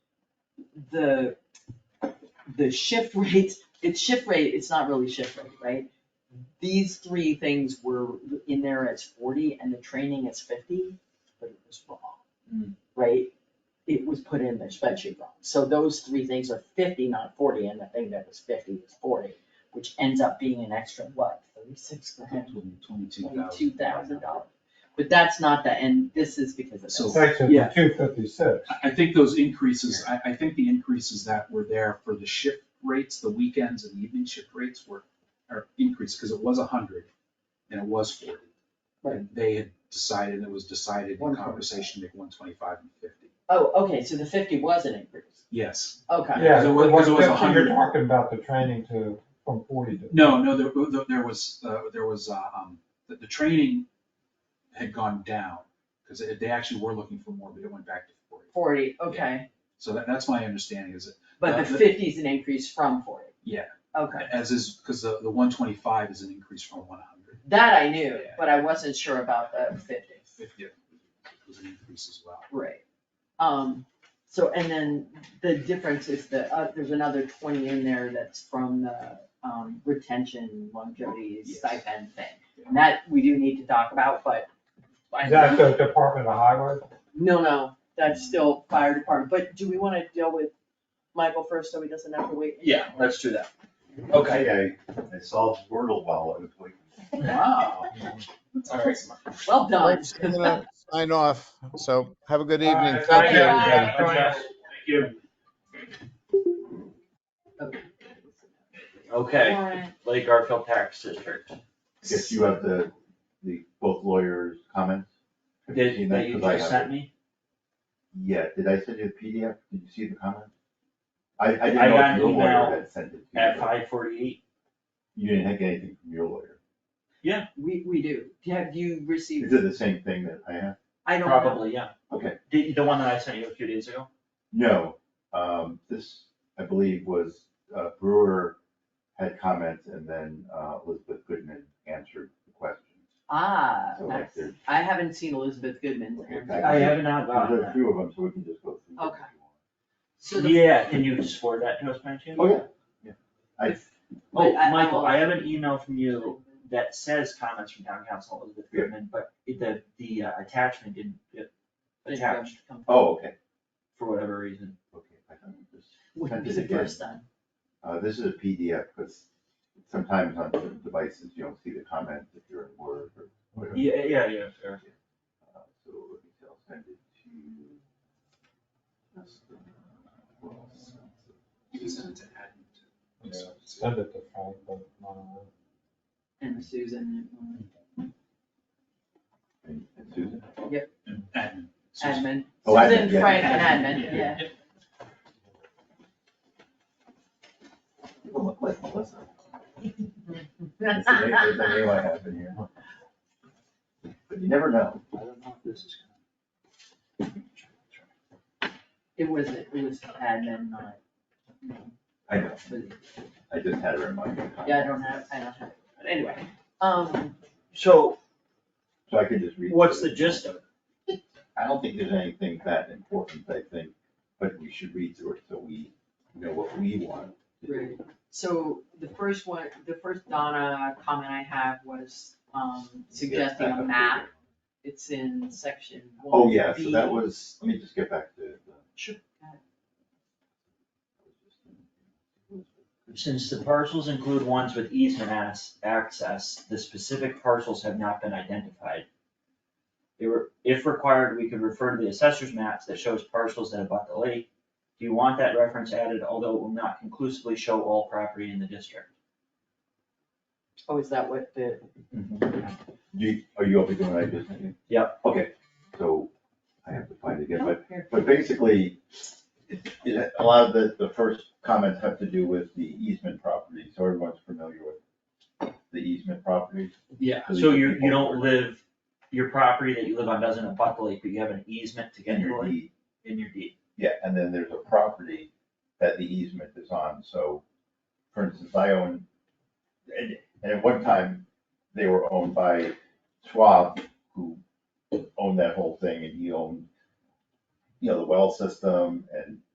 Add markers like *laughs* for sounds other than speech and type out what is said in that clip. the, the shift rates, it's shift rate, it's not really shift rate, right? These three things were in there as forty and the training is fifty, but it was wrong, right? It was put in the spreadsheet wrong, so those three things are fifty, not forty, and the thing that was fifty was forty, which ends up being an extra, what, thirty-six grand? Twenty-two Twenty-two thousand dollars, but that's not the end, this is because of this. So Section yeah. Uh, two fifty-six. I, I think those increases, I, I think the increases that were there for the shift rates, the weekends and evening shift rates were, are increased, because it was a hundred and it was forty. And They had decided, it was decided in 125. conversation, to make one twenty-five and fifty. Oh, okay, so the fifty was an increase, Yes. okay. Yeah, Because it the was- one because it was a fifty, you're hundred. talking about the training to, from forty to. No, no, there, there- there was, uh, there was, uh, um, the, the training had gone down, because they actually were looking for more, but it went back to forty. Forty, okay, So that, that's my understanding, is that, but the Uh, the- fifty's an increase from forty, yeah, okay. as is, because the, the one twenty-five is an increase from one hundred. That I knew, Yeah. but I wasn't sure about the fifty, Fifty was an increase as well. right. Um, so, and then the difference is the, uh, there's another twenty in there that's from the, um, retention longevity Yes. stipend thing. And that we do need to talk about, but I, Is that the Department of Highway? no, no, that's still fire department, but do we wanna deal with Michael first so he doesn't have to wait? Yeah, let's do that. Okay, I, I solved Wordle well, it was like, Wow, That's awesome. well done. Thanks, *laughs* I'm gonna Sign off. So have a good evening. Uh, Thank you. Bye. yeah, Thank you. All Okay, right. Lake Garfield Tax District. if you have the, the, both lawyers' comments. Did, that you 'cause I just have it. sent me? Yeah, did I send you the PDF? Did you see the comment? I, I I didn't got know if an your email lawyer had sent it to you. At but five forty-eight? You didn't have anything from your lawyer. We, we do. Have you Is received? it the same thing that I have? I don't know. Probably, yeah. Okay. The, the one that I sent you a few days ago? No, um, this, I believe, was uh, Brewer had comments and then, uh, Elizabeth Goodman answered the question. Ah, So, like, that's- there's- I haven't seen Elizabeth Goodman's Oh, Okay, answer. I- Uh-huh. I have not gotten There's a that. few of them, so we can just go through. them if Okay. you want. So the- Yeah, can you just forward that to us, by chance? Oh, yeah, yeah. I, Oh, But I- Michael, I I'll- have an email from you that says comments from town council Elizabeth Yeah. Goodman, but it- the, the uh, attachment didn't get attached oh, okay, for whatever reason. okay. I thought it was- Wouldn't be the first time. Uh, this is a PDF, because sometimes on certain devices, you don't see the comments if you're in Word or whatever. Yeah, yeah, yeah, fair. Uh, So let me see, I'll send it to. uh, You can send it to admin too. Send it to Frank, but, uh, And Susan, And and Susan, Admin. Susan. admin. Oh, admin, Susan, yeah. Frank, and admin, yeah. *laughs* you don't look like Melissa. That's the name, that's the name I have in here. But you never know. I don't know if this is. It was, it was admin, not. I know, I just had her in mind. Yeah, I don't have, I don't have, but anyway, um, So So I could just read. what's through the it. gist of it? I don't think there's anything that important, I think, but we should read through it so we know what we want. to do. Right. so the first one, the first Donna comment I have was, um, suggesting Yeah, a map. It's in section one. Oh, yeah, so B. that was, let me just get back to Sure. the. Since the parcels include ones with easement as- access, the specific parcels have not been identified. They were- If required, we could refer to the assessor's maps that shows parcels that abut the lake. Do you want that reference added, although it will not conclusively show all property in the district? Oh, is that what the, Do Mm-hmm. you, are you open to what I just said? Yep. Okay, so I have to find it again, but, Oh, here. but basically, it, it, a lot of the, the first comments have to do with the easement property, so everyone's familiar with the easement property. Yeah. these So are you, people you who are don't live, your property that you live on doesn't abut the lake, but you have an easement to get in to the your lake deed. in your deed. Yeah, and then there's a property that the easement is on, so, for instance, I own, and, and at one time, they were owned by Schwab, who owned that whole thing, and he owned, you know, the well system and